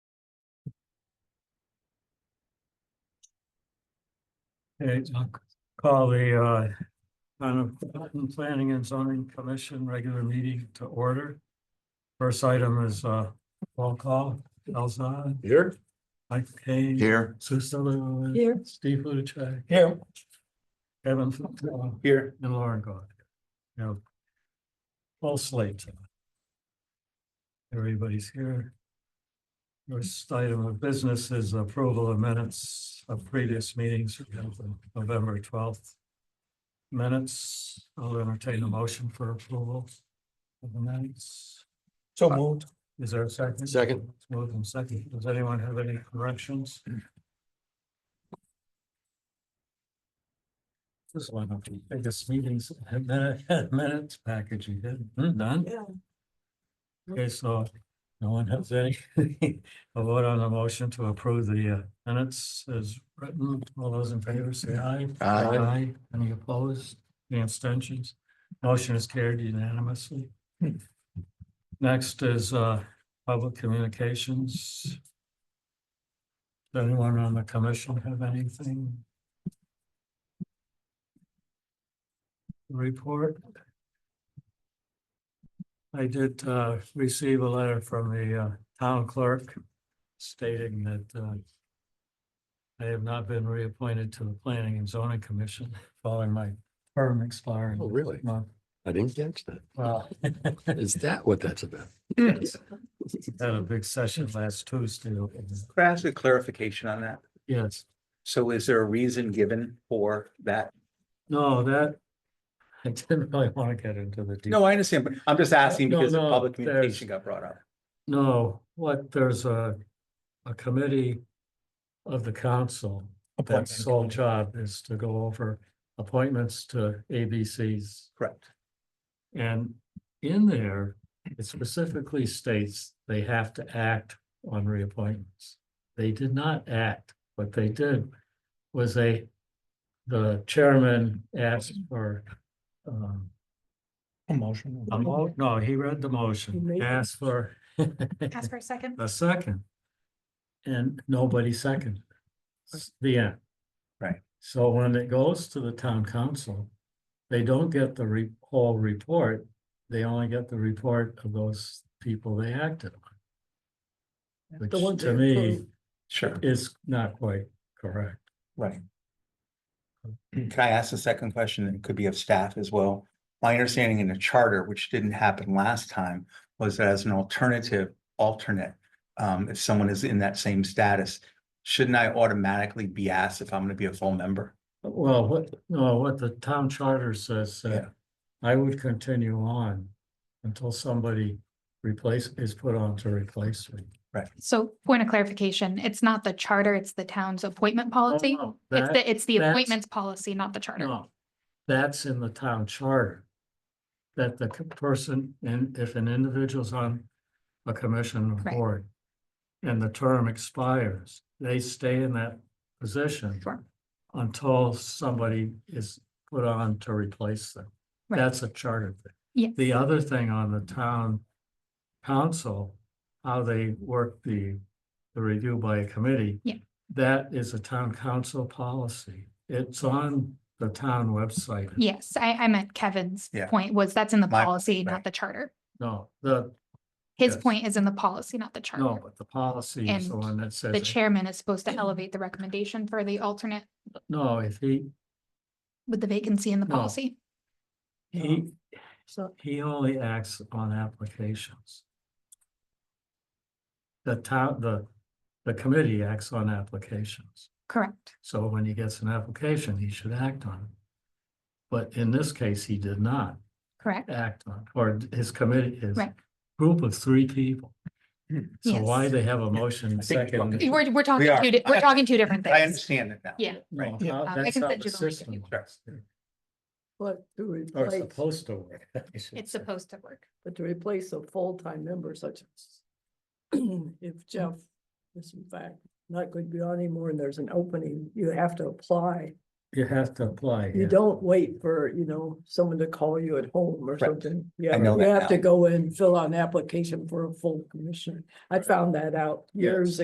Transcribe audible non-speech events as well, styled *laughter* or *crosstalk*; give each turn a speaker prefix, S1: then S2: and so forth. S1: Okay, I'll call the uh, Town of Groton Planning and Zoning Commission regular meeting to order. First item is uh, roll call, Elzad,
S2: Here?
S1: Mike Kane.
S2: Here.
S1: Susan Lewis.
S3: Here.
S1: Steve Luchek,
S2: Here.
S1: Kevin Fitzgerald,
S2: Here.
S1: and Lauren God. You know, full slate. Everybody's here. First item of business is approval of minutes of previous meetings, we have the November twelfth. Minutes, I'll entertain a motion for approval of the minutes.
S2: So
S1: moved. Is there a second?
S2: Second.
S1: It's Moved and second. Does anyone have any corrections? This is one of the biggest meetings, *laughs* minute- minutes package you did, Hmm, done.
S3: Yeah.
S1: Okay, so no one has any, *laughs* a vote on the motion to approve the uh, minutes as written. All those in favor say aye.
S2: Aye.
S1: Any opposed, any abstentions? Motion is carried unanimously. Next is uh, public communications. Does anyone on the commission have anything? Report? I did uh, receive a letter from the uh, town clerk stating that uh, I have not been reappointed to the Planning and Zoning Commission following my term expiring.
S2: Oh, really?
S1: this month.
S2: I didn't catch that.
S1: Well, *laughs*
S2: Is that what that's about?
S1: Had a big session last Tuesday.
S4: Could I ask a clarification on that?
S1: Yes,
S4: So is there a reason given for that?
S1: no, that, I didn't really want to get into the. detail.
S4: No, I understand, but I'm just asking
S1: No,
S4: because the
S1: no,
S4: public
S1: there's-
S4: communication got brought up.
S1: No, what, there's a, a committee of the council.
S4: Appointment
S1: That's sole job is to go over appointments to ABCs.
S4: Correct.
S1: And in there, it specifically states they have to act on reappointments. They did not act. What they did was they, the chairman asked for, um,
S4: A motion.
S1: a mo- no, he read the
S3: He
S1: motion,
S3: made it.
S1: asked for
S5: Ask for a
S1: *laughs*
S5: second.
S1: a second. And nobody seconded. It's The end.
S4: Right.
S1: So when it goes to the town council, they don't get the re- whole report. They only get the report of those people they acted on.
S3: The
S1: Which
S3: ones
S1: to
S3: they
S1: me
S3: approved.
S4: Sure,
S1: is not quite correct.
S4: right. Can I ask a second question? It could be of staff as well. My understanding in the charter, which didn't happen last time, was that as an alternative, alternate, um, if someone is in that same status, shouldn't I automatically be asked if I'm gonna be a full member?
S1: Well, what, no, what the town charter says,
S4: Yeah.
S1: uh, I would continue on until somebody replace, is put on to replace me.
S5: So point of clarification, it's not the charter, it's the town's appointment policy.
S1: Oh, no,
S5: It's
S1: that-
S5: the, it's the
S1: that's- Oh.
S5: appointments policy, not the charter.
S1: No, that's in the town charter. That the c- person, and if an individual's on a commission or
S5: Right.
S1: board. And the term expires, they stay in that position
S5: Sure.
S1: until somebody is put on to replace them.
S5: Right.
S1: That's a charter thing.
S5: Yes.
S1: The other thing on the town council, how they work the, the review by a committee.
S5: Yeah.
S1: That is a town council policy. It's on the town website.
S5: Yes, I, I meant Kevin's
S4: Yeah.
S5: point was that's in the
S4: My-
S5: policy,
S4: right.
S5: not the charter.
S1: No, the,
S5: His
S1: Yes.
S5: point is in the policy, not the
S1: no,
S5: charter.
S1: but the policy is the
S5: And
S1: one that says.
S5: The chairman is supposed to elevate the recommendation for the alternate
S1: No, if he,
S5: with the vacancy in the
S1: No.
S5: policy.
S1: he,
S5: Oh.
S3: So,
S1: he only acts on applications. The town, the, the committee acts on applications.
S5: Correct.
S1: So when he gets an application, he should act on it. But in this case, he did not
S5: Correct.
S1: act on, or his committee, his
S5: Right.
S1: group of three people. So
S5: Yes.
S1: why they have a motion
S4: I think you're
S1: second?
S4: talking-
S5: We're, we're talking,
S4: are.
S5: two di- we're talking two different
S4: I
S5: things.
S4: understand it now.
S5: Yeah.
S1: No,
S4: Yeah.
S1: how-
S5: Uh, I
S1: that's
S5: can
S1: how
S5: send
S1: the
S5: you the link if
S1: system
S5: you
S1: works.
S3: but to
S1: Or
S3: replace,
S1: supposed to work. I should
S5: It's
S1: say.
S5: supposed to work.
S3: but to replace a full-time member such as *clears throat* if Jeff is in fact not going to be on anymore and there's an opening, you have to apply.
S1: *laughs* You have to apply. yeah.
S3: You don't wait for, you know, someone to call you at home or
S4: Correct.
S3: something. Yeah,
S4: know
S3: you
S4: that
S3: have to
S4: now.
S3: go and fill out an application for a full commission. I found that out years